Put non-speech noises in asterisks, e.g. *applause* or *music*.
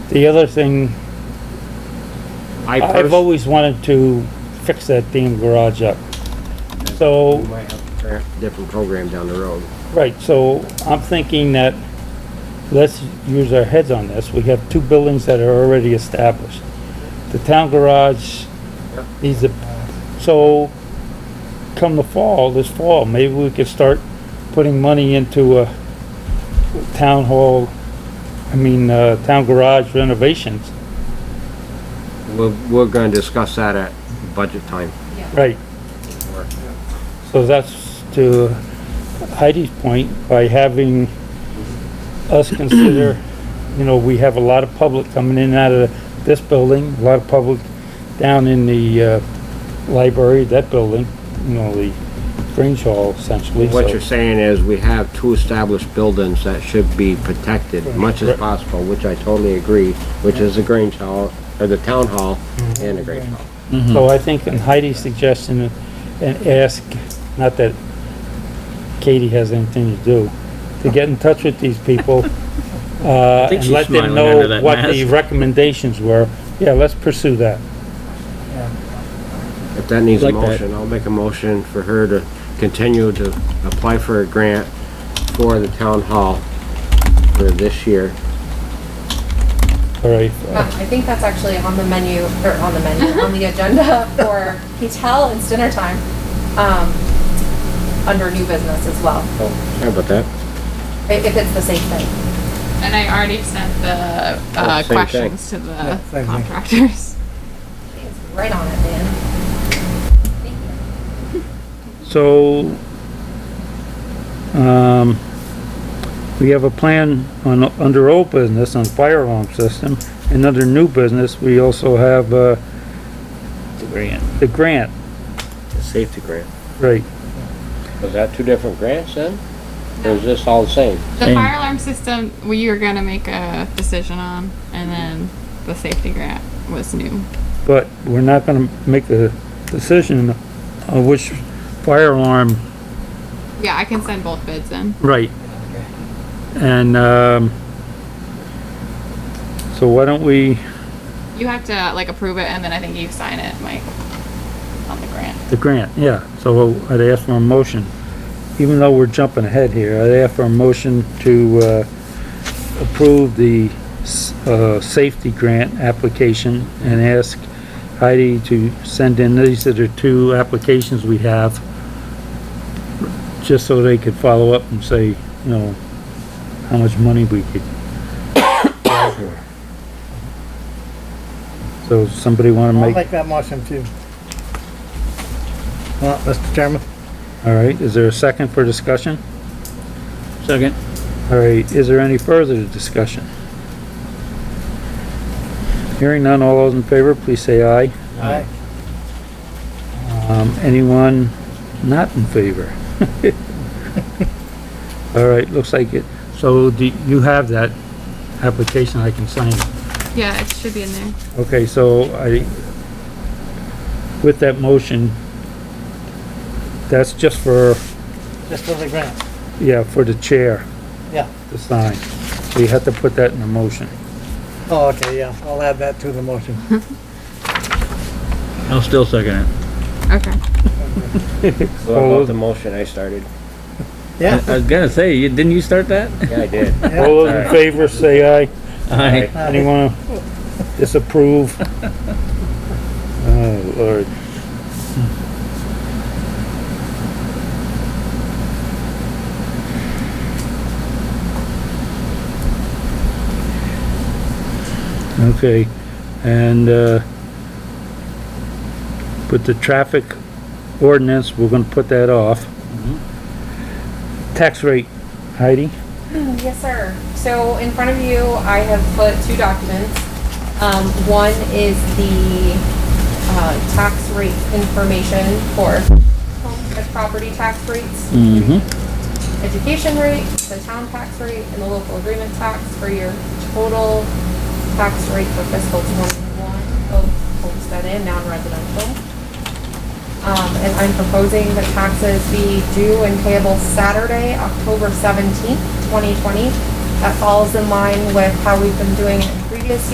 The other thing, I I've personally. always wanted to fix that damn garage up. So, might have a pro- Different program down the road. right, so I'm thinking that, let's use our heads on this, we have two buildings that are already established. The town garage Yep. needs a, so come the fall, this fall, maybe we could start putting money into a town hall, I mean, uh, town garage renovations. We're, we're gonna discuss that at budget time. Right. So that's to Heidi's point, by having us consider, you know, we have a lot of public coming in and out of this building, a lot of public down in the, uh, library, that building, you know, the Grange Hall essentially, What you're so. saying is we have two established buildings that should be protected much Mm-hmm. as Right. possible, which I totally agree, which is the Grange Hall, or the Town Hall Mm-hmm. and the Grange Hall. So I think in Heidi's suggestion, uh, and ask, not that Katie has anything to do, to get in touch with these *laughs* people, uh, think and she's let them smiling under know that what the mask. recommendations were. Yeah, let's pursue that. If that needs a Like that. motion, I'll make a motion for her to continue to apply for a grant for the Town Hall for this year. All right, Uh, I think that's actually on the menu, or on the menu, on the agenda for hotel, it's dinner time, um, under new business as well, How about that? i- if it's the same thing. And I already sent the Oh, uh, same thing. questions to the contractors. *laughs* It's right on it, man. Thank you. so, um, we have a plan on, under old business on fire alarm system, and under new business, we also have, uh, the grant, The safety grant. right. Was that two different grants then? Or is this all the same? The Same. fire alarm system, we were gonna make a decision on, and then the safety grant was new. but we're not gonna make the decision on which fire alarm. Yeah, I can send both bids in. Right. And, um, so why don't we, You have to like approve it, and then I think you sign it, Mike, on the grant. the grant, yeah, so I'd ask for a motion. Even though we're jumping ahead here, I'd ask for a motion to, uh, approve the, s- uh, safety grant application and ask Heidi to send in, these are the two applications we have, just so they could follow up and say, you know, how much money we could. *coughs* So somebody wanna I'll make, make that motion too. Well, Mr. Chairman, all right, is there a second for discussion? Second. All right, is there any further discussion? Hearing none, all those in favor, please say aye. I, Um, anyone not in favor? All right, looks like it. So do, you have that application I can sign? Yeah, it should be in there. Okay, so I, with that motion, that's just for, just for the grant, yeah, for the chair yeah. to sign. So you have to put that in the motion. Oh, okay, yeah, I'll add that to the motion. I'll still second it. Okay. What about the motion I started? Yeah, I was *laughs* gonna say, you, didn't you start that? Yeah, I did. yeah. All *laughs* those in favor, say aye. Aye. Aye. Anyone disapprove? Oh, Lord. Okay, and, uh, with the traffic ordinance, we're gonna put that off. Tax rate, Heidi? Yes, sir. So in front of you, I have put two documents. Um, one is the, uh, tax rate information for home and property tax rates. Education rate, the town tax rate, and the local agreement tax for your total tax rate for fiscal twenty-one, Oh, both homestead and non-residential. Um, and I'm proposing that taxes be due and payable Saturday, October seventeenth, twenty twenty. That falls in line with how we've been doing it in previous